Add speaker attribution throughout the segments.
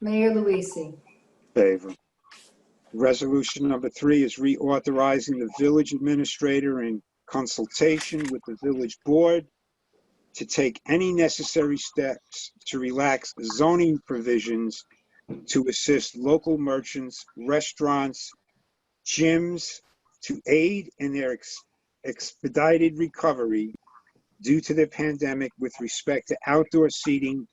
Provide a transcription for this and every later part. Speaker 1: Mayor Luise.
Speaker 2: Favor. Resolution number three is reauthorizing the village administrator in consultation with the village board to take any necessary steps to relax zoning provisions to assist local merchants, restaurants, gyms to aid in their ex- expedited recovery due to the pandemic with respect to outdoor seating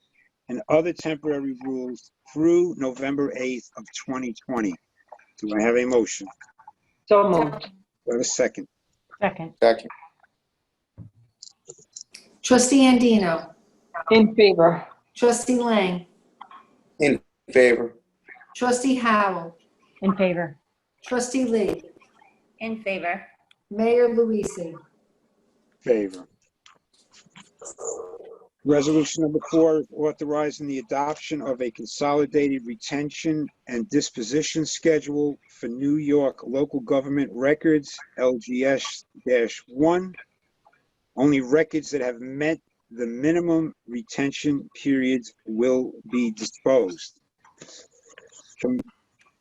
Speaker 2: and other temporary rules through November 8th of 2020. Do I have a motion?
Speaker 3: So moved.
Speaker 2: Do I have a second?
Speaker 4: Second.
Speaker 5: Second.
Speaker 1: Trustee Andino.
Speaker 3: In favor.
Speaker 1: Trustee Lang.
Speaker 5: Favor.
Speaker 1: Trustee Howell.
Speaker 4: In favor.
Speaker 1: Trustee Lee.
Speaker 6: In favor.
Speaker 1: Mayor Luise.
Speaker 2: Favor. Resolution number four is authorizing the adoption of a consolidated retention and disposition schedule for New York Local Government Records, LGS-1. Only records that have met the minimum retention periods will be disposed. Can-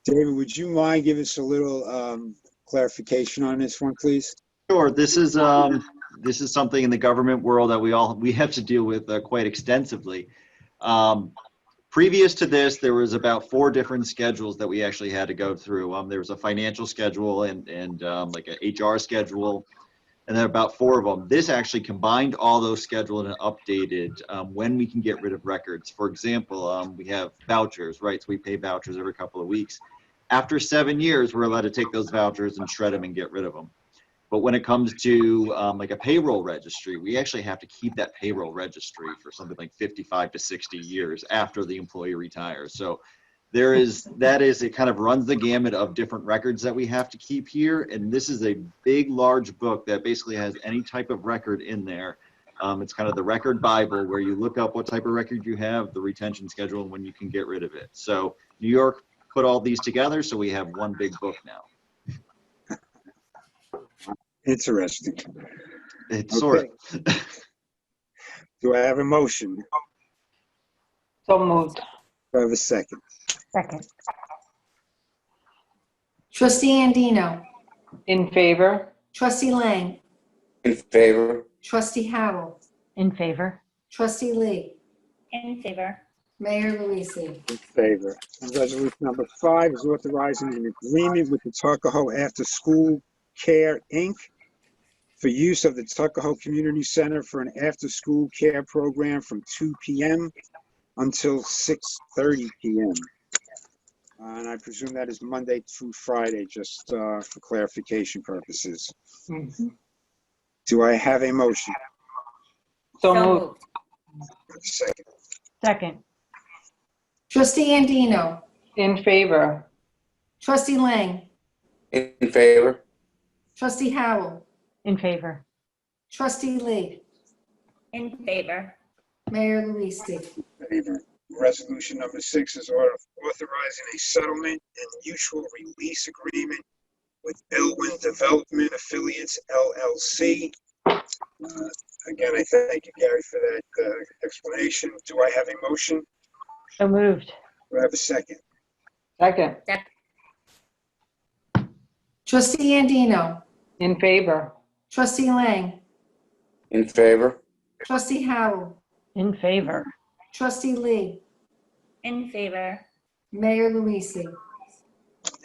Speaker 2: David, would you mind giving us a little um, clarification on this one, please?
Speaker 7: Sure, this is, um, this is something in the government world that we all, we have to deal with uh, quite extensively. Um, Previous to this, there was about four different schedules that we actually had to go through. Um, there was a financial schedule and, and, um, like a HR schedule. And then about four of them. This actually combined all those scheduled and updated, um, when we can get rid of records. For example, um, we have vouchers, right? So we pay vouchers every couple of weeks. After seven years, we're allowed to take those vouchers and shred them and get rid of them. But when it comes to um, like a payroll registry, we actually have to keep that payroll registry for something like 55 to 60 years after the employee retires. So there is, that is, it kind of runs the gamut of different records that we have to keep here. And this is a big, large book that basically has any type of record in there. Um, it's kind of the record Bible where you look up what type of record you have, the retention schedule, and when you can get rid of it. So New York put all these together, so we have one big book now.
Speaker 2: Interesting.
Speaker 7: It's sort of.
Speaker 2: Do I have a motion?
Speaker 3: So moved.
Speaker 2: Do I have a second?
Speaker 4: Second.
Speaker 1: Trustee Andino.
Speaker 3: In favor.
Speaker 1: Trustee Lang.
Speaker 5: In favor.
Speaker 1: Trustee Howell.
Speaker 4: In favor.
Speaker 1: Trustee Lee.
Speaker 6: In favor.
Speaker 1: Mayor Luise.
Speaker 2: In favor. And resolution number five is authorizing an agreement with the Tuckahoe After School Care, Inc. for use of the Tuckahoe Community Center for an after-school care program from 2 PM until 6:30 PM. And I presume that is Monday through Friday, just uh, for clarification purposes. Do I have a motion?
Speaker 3: So moved.
Speaker 2: Second.
Speaker 4: Second.
Speaker 1: Trustee Andino.
Speaker 3: In favor.
Speaker 1: Trustee Lang.
Speaker 5: In favor.
Speaker 1: Trustee Howell.
Speaker 4: In favor.
Speaker 1: Trustee Lee.
Speaker 6: In favor.
Speaker 1: Mayor Luise.
Speaker 2: favor. Resolution number six is order authorizing a settlement and mutual release agreement with Elwin Development Affiliates LLC. Uh, Again, I thank you, Gary, for that uh, explanation. Do I have a motion?
Speaker 4: So moved.
Speaker 2: Do I have a second?
Speaker 3: Second.
Speaker 1: Trustee Andino.
Speaker 3: In favor.
Speaker 1: Trustee Lang.
Speaker 5: In favor.
Speaker 1: Trustee Howell.
Speaker 4: In favor.
Speaker 1: Trustee Lee.
Speaker 6: In favor.
Speaker 1: Mayor Luise.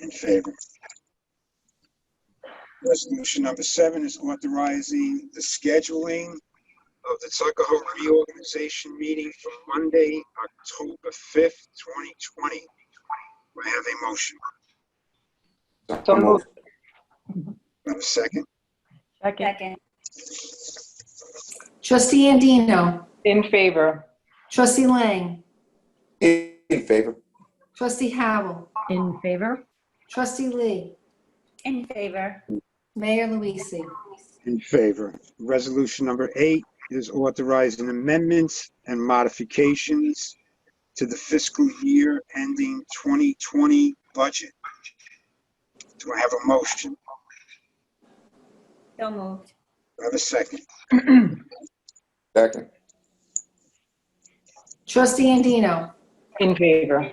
Speaker 2: In favor. Resolution number seven is authorizing the scheduling of the Tuckahoe reorganization meeting for Monday, October 5th, 2020. Do I have a motion?
Speaker 3: So moved.
Speaker 2: Do I have a second?
Speaker 4: Second.
Speaker 6: Second.
Speaker 1: Trustee Andino.
Speaker 3: In favor.
Speaker 1: Trustee Lang.
Speaker 5: In favor.
Speaker 1: Trustee Howell.
Speaker 4: In favor.
Speaker 1: Trustee Lee.
Speaker 6: In favor.
Speaker 1: Mayor Luise.
Speaker 2: In favor. Resolution number eight is authorizing amendments and modifications to the fiscal year ending 2020 budget. Do I have a motion?
Speaker 6: So moved.
Speaker 2: Do I have a second?
Speaker 5: Second.
Speaker 1: Trustee Andino.
Speaker 3: In favor.